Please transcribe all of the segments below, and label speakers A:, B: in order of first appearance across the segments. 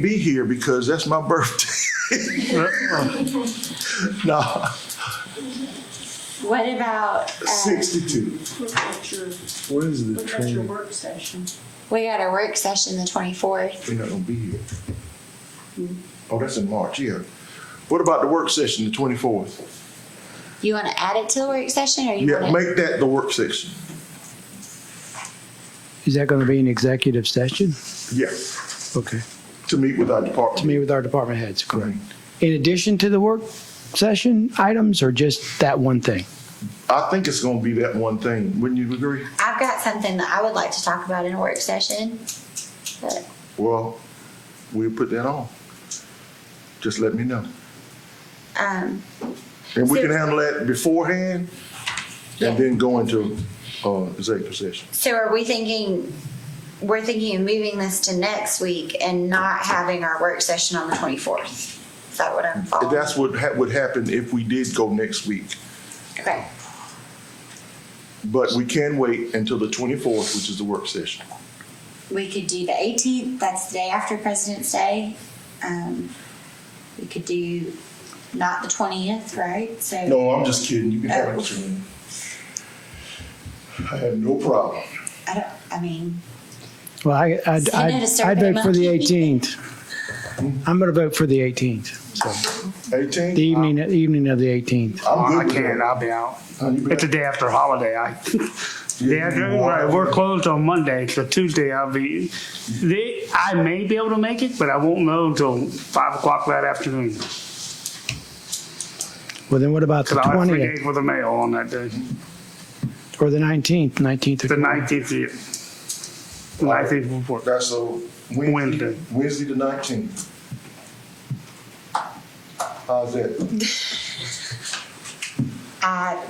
A: be here because that's my birthday.
B: Uh,
A: no,
C: What about, uh,
A: 62.
D: Look at your,
B: What is the
D: look at your
B: training?
D: work session.
C: we got our work session the twenty-fourth.
A: They're not going to be here. Oh, that's in March, yeah. What about the work session, the 24th?
C: You wanna add it to the work session or you
A: Yeah,
C: wanna?
A: make that the work session.
B: Is that going to be an executive session?
A: Yeah,
B: Okay.
A: to meet with our
B: To
A: department.
B: meet with our department heads, correct. In addition to the work session items or just that one thing?
A: I think it's going to be that one thing. Wouldn't you agree?
C: I've got something that I would like to talk about in a work session. But
A: Well, we'll put that on. Just let me know.
C: Um,
A: And we can
C: So-
A: handle that beforehand
C: Yeah.
A: and then go into uh, executive session.
C: so are we thinking, we're thinking of moving this to next week and not having our work session on the twenty-fourth? Is that what I'm following?
A: That's what ha- would happen if we did go next week.
C: Okay,
A: But we can wait until the 24th, which is the work session.
C: we could do the eighteenth, that's the day after President's Day. Um, we could do not the twentieth, right? So.
A: No, I'm just kidding. You can have it. Mr.
C: Oh.
A: Lynn. I have no problem.
C: I don't, I mean,
B: Well, I, I'd,
C: Send out a
B: I'd I'd
C: survey
B: vote for the
C: monkey.
B: 18th. I'm going to vote for the 18th, the
A: 18?
B: evening, the evening of the 18th.
A: I'm
E: Oh,
A: good
E: I
A: with
E: can't,
A: that.
E: I'll be out.
A: Oh, you been
E: It's the
A: out?
E: day after holiday, I,
A: Yeah,
E: day after,
A: you are.
E: right, we're closed on Monday, so Tuesday I'll be, they, I may be able to make it, but I won't know until five o'clock that afternoon. Cause
B: Well, then what about the
E: I'll have three
B: 20th
E: days with the mail on that day,
B: or the 19th, 19th or
E: the
B: 20th?
E: nineteenth, yeah. Nineteenth report.
A: That's a Wednesday,
E: Wednesday.
A: Wednesday the 19th. How's that?
C: I,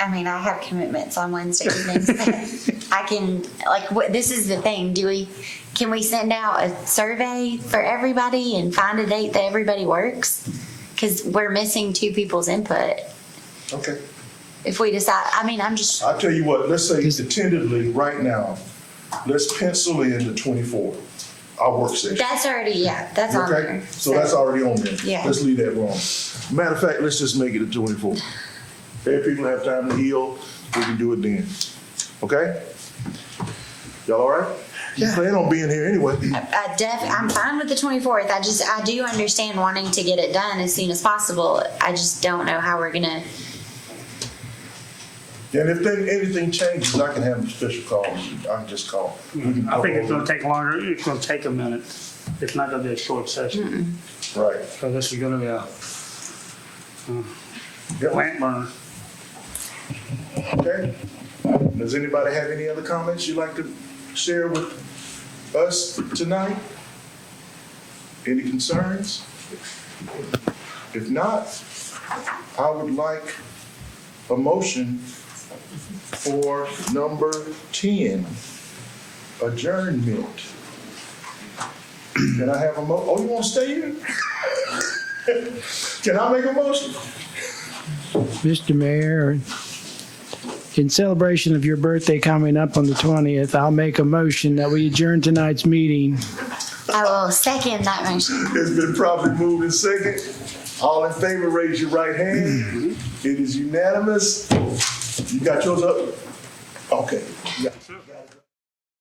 C: I mean, I have commitments on Wednesday evenings. I can, like, what, this is the thing, do we, can we send out a survey for everybody and find a date that everybody works? Cause we're missing two people's input.
A: Okay.
C: If we decide, I mean, I'm just,
A: I tell you what, let's say tentatively, right now, let's pencil in the 24th, our work session.
C: that's already, yeah, that's on
A: Okay,
C: there.
A: so that's already on there.
C: Yeah.
A: Let's leave that wrong. Matter of fact, let's just make it the twenty-fourth. Let people have time to heal, we can do it then. Okay? Y'all all right? You plan on being here anyway.
C: I def, I'm fine with the twenty-fourth, I just, I do understand wanting to get it done as soon as possible. I just don't know how we're gonna,
A: And if then anything changes, I can have a special call. I can just call. We can
E: I think it's
A: talk
E: gonna take longer, it's gonna take a minute, it's not gonna be a short session,
A: over it.
E: so Oh, this is gonna be a
A: Right.
E: plant burner.
A: Okay? Does anybody have any other comments you'd like to share with us tonight? Any concerns? If not, I would like a motion for number ten, adjournment. Can I have a mo, oh, you wanna stay here? Can I make a motion?
B: Mr. Mayor, in celebration of your birthday coming up on the 20th, I'll make a motion that we adjourn tonight's meeting.
C: I will oh, second that motion.
A: It's been properly moved and second. All in favor, raise your right hand. It is unanimous. You got yours up? Okay. Yeah.